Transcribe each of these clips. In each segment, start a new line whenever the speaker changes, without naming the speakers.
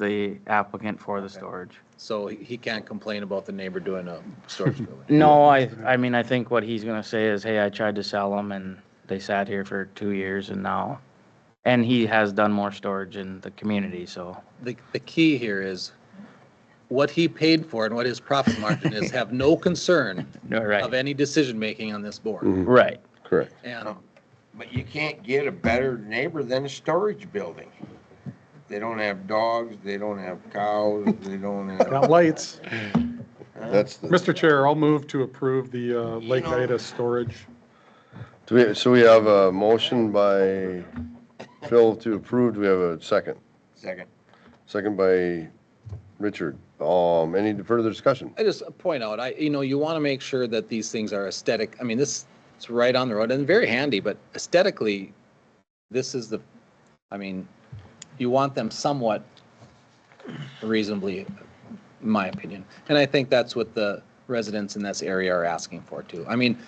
the applicant for the storage.
So he- he can't complain about the neighbor doing a storage building.
No, I, I mean, I think what he's gonna say is, hey, I tried to sell them and they sat here for two years and now, and he has done more storage in the community, so.
The, the key here is what he paid for and what his profit margin is, have no concern
No,
of
right,
any decision-making on this board.
right.
Correct.
And
But you can't get a better neighbor than a storage building. They don't have dogs, they don't have cows, they don't
Got
have.
lights.
That's the,
Mr. Chair, I'll move to approve the uh, Lake Ida storage.
do we, so we have a motion by Phil to approve. Do we have a second?
Second.
Second by Richard. Um, any further discussion?
I just uh, point out, I, you know, you want to make sure that these things are aesthetic. I mean, this, it's right on the road and very handy, but aesthetically, this is the, I mean, you want them somewhat reasonably, in my opinion. And I think that's what the residents in this area are asking for too. I mean,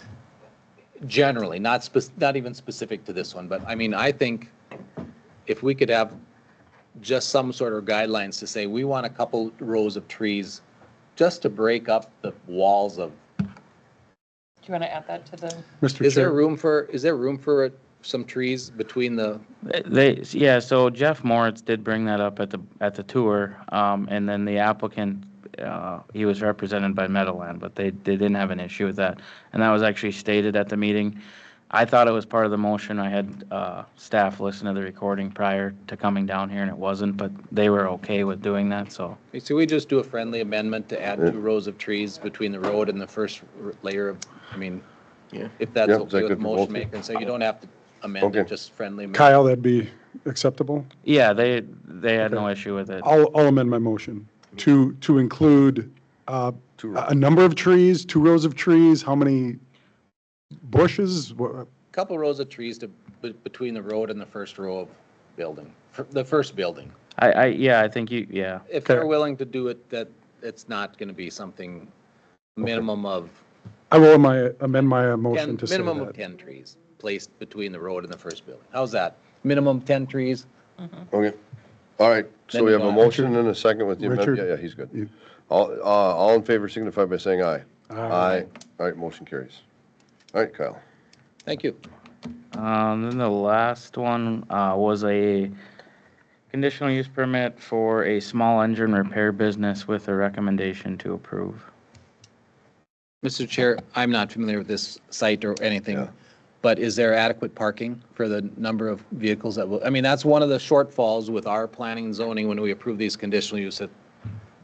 generally, not spec, not even specific to this one, but I mean, I think if we could have just some sort of guidelines to say, we want a couple rows of trees just to break up the walls of,
Do you want to add that to the,
Mr.
is there
Chair,
room for, is there room for some trees between the,
They, yeah, so Jeff Moritz did bring that up at the, at the tour, um, and then the applicant, uh, he was represented by Meadowland, but they, they didn't have an issue with that. And that was actually stated at the meeting. I thought it was part of the motion. I had, uh, staff listen to the recording prior to coming down here and it wasn't, but they were okay with doing that, so.
so we just do a friendly amendment to add two rows of trees between the road and the first r- layer of, I mean, if that's
Yeah, is that
okay
good
with
for both of
motion
you?
maker, and so you don't have to amend it,
Okay.
just friendly. amendment.
Kyle, that'd be acceptable.
Yeah, they, they had no issue with it.
I'll, I'll amend my motion to, to include uh,
Two
a a number of trees, two rows of trees, how many bushes? Wha-
Couple rows of trees to, be- between the road and the first row of building, fir- the first building.
I, I, yeah, I think you, yeah.
If they're
Okay.
willing to do it, that, it's not gonna be something minimum of
I will my- amend my
Ten,
motion to say
minimum of
that.
10 trees placed between the road and the first building. How's that? Minimum 10 trees?
Okay. All right. So
Then
we have a
Don.
motion and a second with the amendment.
Richard.
Yeah, yeah, he's good.
You-
All, uh, all in favor signify by saying aye.
Aye.
All right, motion carries. All right, Kyle.
Thank you.
Um, then the last one, uh, was a conditional use permit for a small engine repair business with a recommendation to approve.
Mr. Chair, I'm not familiar with this site or anything,
Yeah.
but is there adequate parking for the number of vehicles that will, I mean, that's one of the shortfalls with our planning and zoning when we approve these conditional use that,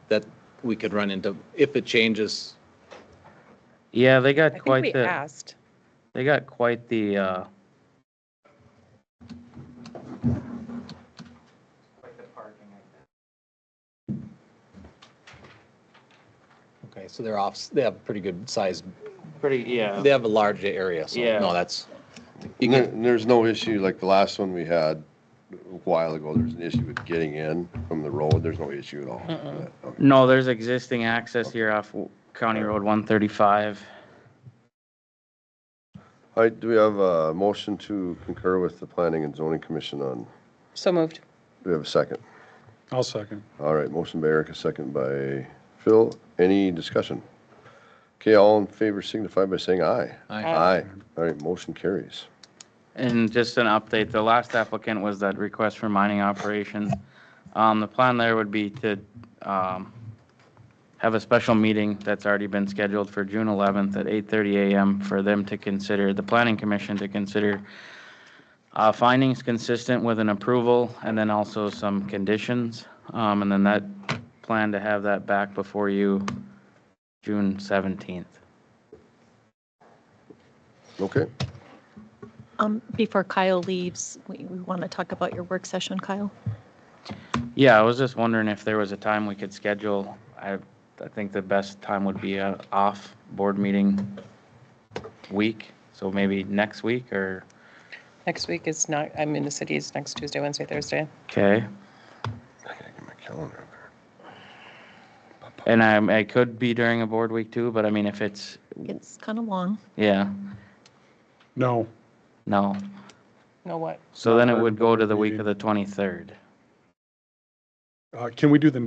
that we could run into if it changes.
Yeah, they
I
got
think
quite
we
the,
asked.
they got quite the, uh,
Okay, so they're off, they have pretty good size,
pretty, yeah.
they have a large area, so
Yeah.
no, that's. you
And there-
can-
and there's no issue, like the last one we had a while ago, there's an issue with getting in from the road. There's no issue at all. Okay.
No, there's existing access here off County Road one thirty-five.
All right, do we have a motion to concur with the Planning and Zoning Commission on,
So moved.
do we have a second?
I'll second.
All right, motion by Eric, a second by Phil. Any discussion? Okay, all in favor signify by saying aye.
I-
Aye. All right, motion carries.
And just an update, the last applicant was that request for mining operation. Um, the plan there would be to, um, have a special meeting that's already been scheduled for June eleventh at eight thirty AM for them to consider, the planning commission to consider uh, findings consistent with an approval and then also some conditions. Um, and then that, plan to have that back before you June seventeenth.
Okay,
Um, Before Kyle leaves, we want to talk about your work session, Kyle.
Yeah, I was just wondering if there was a time we could schedule. I, I think the best time would be a off board meeting week, so maybe next week or,
Next week is not, I'm in the city, it's next Tuesday, Wednesday, Thursday.
okay?
I gotta get my calendar up there.
And I, I could be during a board week too, but I mean, if it's,
It's kind of long.
yeah,
No.
no.
No what?
So then it would go to the week of the twenty-third.
Uh, Can we do the